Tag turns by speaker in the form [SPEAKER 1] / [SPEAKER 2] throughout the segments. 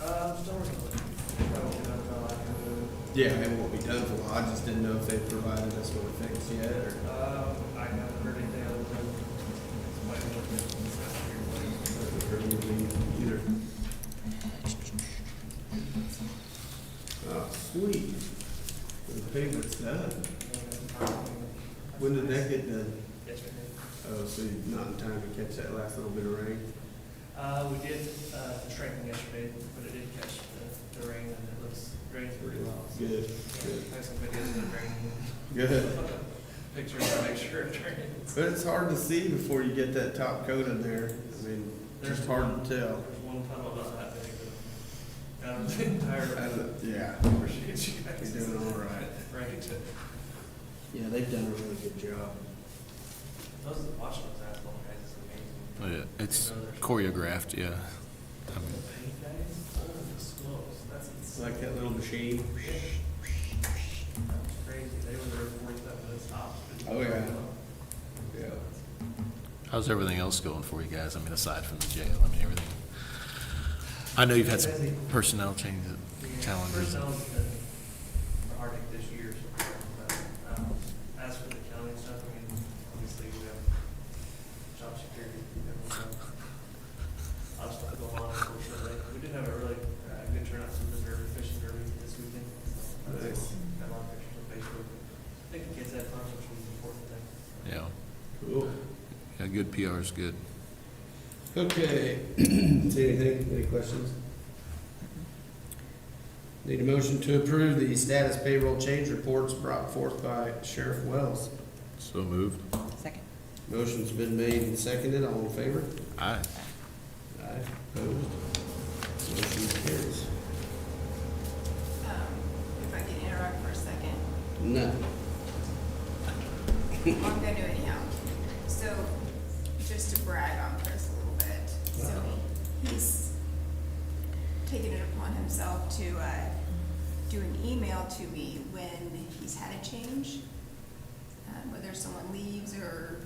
[SPEAKER 1] Uh, I'm still working on it. Probably not about like,
[SPEAKER 2] Yeah, it won't be done for a while. I just didn't know if they provided us with things yet or.
[SPEAKER 1] uh, Um, I haven't heard anything other than somebody looking at this last year, but-
[SPEAKER 2] or anything Either. Oh, sweet. The pavement's done. When did that get done?
[SPEAKER 1] Yesterday.
[SPEAKER 2] Oh, so you're not in time to catch that last little bit of rain?
[SPEAKER 1] Uh, we did, uh, shrinking yesterday, but it did catch the, the rain and it looks, drains pretty well. so-
[SPEAKER 2] Good, good,
[SPEAKER 1] I have some videos of the rain.
[SPEAKER 2] good.
[SPEAKER 1] Pictures to make sure it drains.
[SPEAKER 2] But it's hard to see before you get that top coat in there. I mean, it's just hard to tell.
[SPEAKER 1] There's one tunnel about that big, but out of the entire,
[SPEAKER 2] I don't- Yeah,
[SPEAKER 1] I appreciate you guys.
[SPEAKER 2] you're doing all right.
[SPEAKER 1] Right.
[SPEAKER 2] Yeah, they've done a really good job.
[SPEAKER 1] Those watching those asphalt guys is amazing.
[SPEAKER 3] Oh, Yeah, It's choreographed, yeah. I mean,
[SPEAKER 1] Paint guys, holy smokes, that's
[SPEAKER 2] It's
[SPEAKER 1] insane.
[SPEAKER 2] like that little machine.
[SPEAKER 1] That's crazy. They were there before that was stopped.
[SPEAKER 2] Oh, yeah. Yeah.
[SPEAKER 3] How's everything else going for you guys? I mean, aside from the jail, I mean, everything. I know you've had some personnel changes, challenges.
[SPEAKER 1] Personnel's been a heartache this year, so, but, um, as for the county stuff, I mean, obviously we have job security. everyone, uh, Lots of going on, unfortunately. We did have a really, uh, good turnout from the derby, fishing derby this weekend. so that's
[SPEAKER 2] Nice.
[SPEAKER 1] cool. Got a lot of pictures on Facebook. I think the kids had fun, which was an important thing.
[SPEAKER 3] Yeah,
[SPEAKER 2] Cool.
[SPEAKER 3] yeah, good PR is good.
[SPEAKER 2] Okay, see anything, any questions? Need a motion to approve the status payroll change reports brought forth by Sheriff Wells.
[SPEAKER 3] So moved.
[SPEAKER 4] Second.
[SPEAKER 2] Motion's been made and seconded, all in favor?
[SPEAKER 3] Aye.
[SPEAKER 2] Aye. Opposed? Motion carries.
[SPEAKER 5] Um, If I can interrupt for a second,
[SPEAKER 2] No.
[SPEAKER 5] I'm gonna do it anyhow. So, just to brag on Chris a little bit, so he's taken it upon himself to, uh, do an email to me when he's had a change, um, whether someone leaves or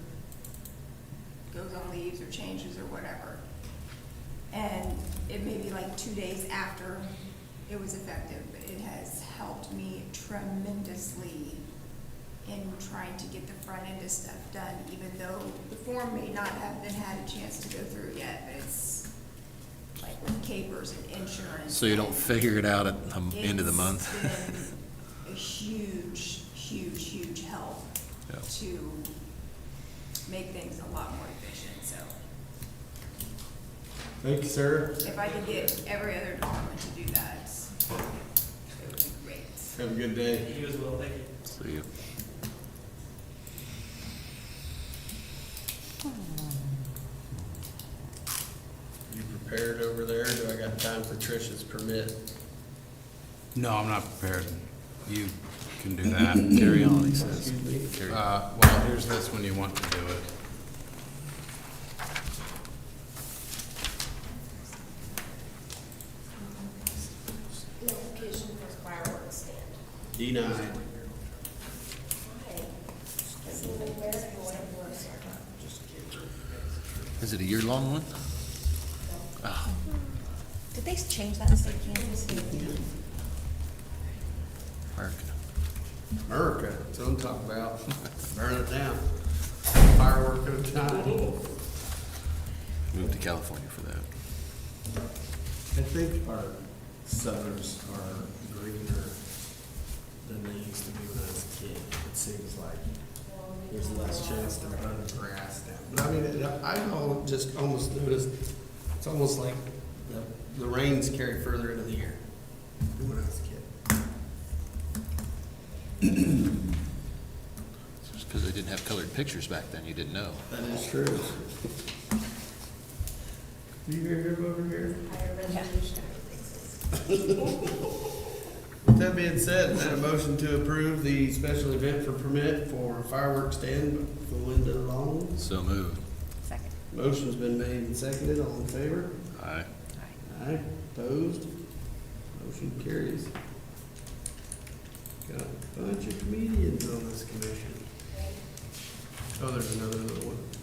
[SPEAKER 5] goes on leaves or changes or whatever. And it may be like two days after it was effective, but it has helped me tremendously in trying to get the front end of stuff done, even though the form may not have been had a chance to go through yet, but it's like with capers and insurance.
[SPEAKER 3] So you don't
[SPEAKER 5] and-
[SPEAKER 3] figure it out at the m- end of the month?
[SPEAKER 5] it's been a huge, huge, huge help
[SPEAKER 3] Yeah.
[SPEAKER 5] to make things a lot more efficient, so
[SPEAKER 2] Thank you, sir.
[SPEAKER 5] if I could get every other department to do that, it would be great.
[SPEAKER 2] Have a good day.
[SPEAKER 1] You as well, thank you.
[SPEAKER 3] See you.
[SPEAKER 2] You prepared over there? Do I got time for Trish's permit?
[SPEAKER 6] No, I'm not prepared. You can do that.
[SPEAKER 3] Carry on, he says.
[SPEAKER 2] Excuse me?
[SPEAKER 3] Carry on.
[SPEAKER 6] Uh, well, here's this when you want to do it.
[SPEAKER 7] notification for fireworks stand.
[SPEAKER 2] Denied.
[SPEAKER 7] Why? Does he even wear it or what?
[SPEAKER 3] Is it a year-long one?
[SPEAKER 4] Did they change that in state campus?
[SPEAKER 3] American.
[SPEAKER 2] America, that's what I'm talking about. Burn it down. Firework at a time.
[SPEAKER 3] Moved to California for that.
[SPEAKER 2] I think our suburbs are greener than they used to be when I was a kid. It seems like there's less chance to burn grass down. But I mean, it- I al- just almost noticed, it's almost like the, the rains carry further into the year than when I was a kid.
[SPEAKER 3] It's just because they didn't have colored pictures back then, you didn't know.
[SPEAKER 2] That is true. Do you hear him over here?
[SPEAKER 7] Higher resolution fixes.
[SPEAKER 2] With that being said, is that a motion to approve the special event for permit for fireworks stand for Linda Long?
[SPEAKER 3] So moved.
[SPEAKER 4] Second.
[SPEAKER 2] Motion's been made and seconded, all in favor?
[SPEAKER 3] Aye.
[SPEAKER 2] Aye. Opposed? Motion carries. Got a bunch of comedians on this commission. Oh, there's another little one.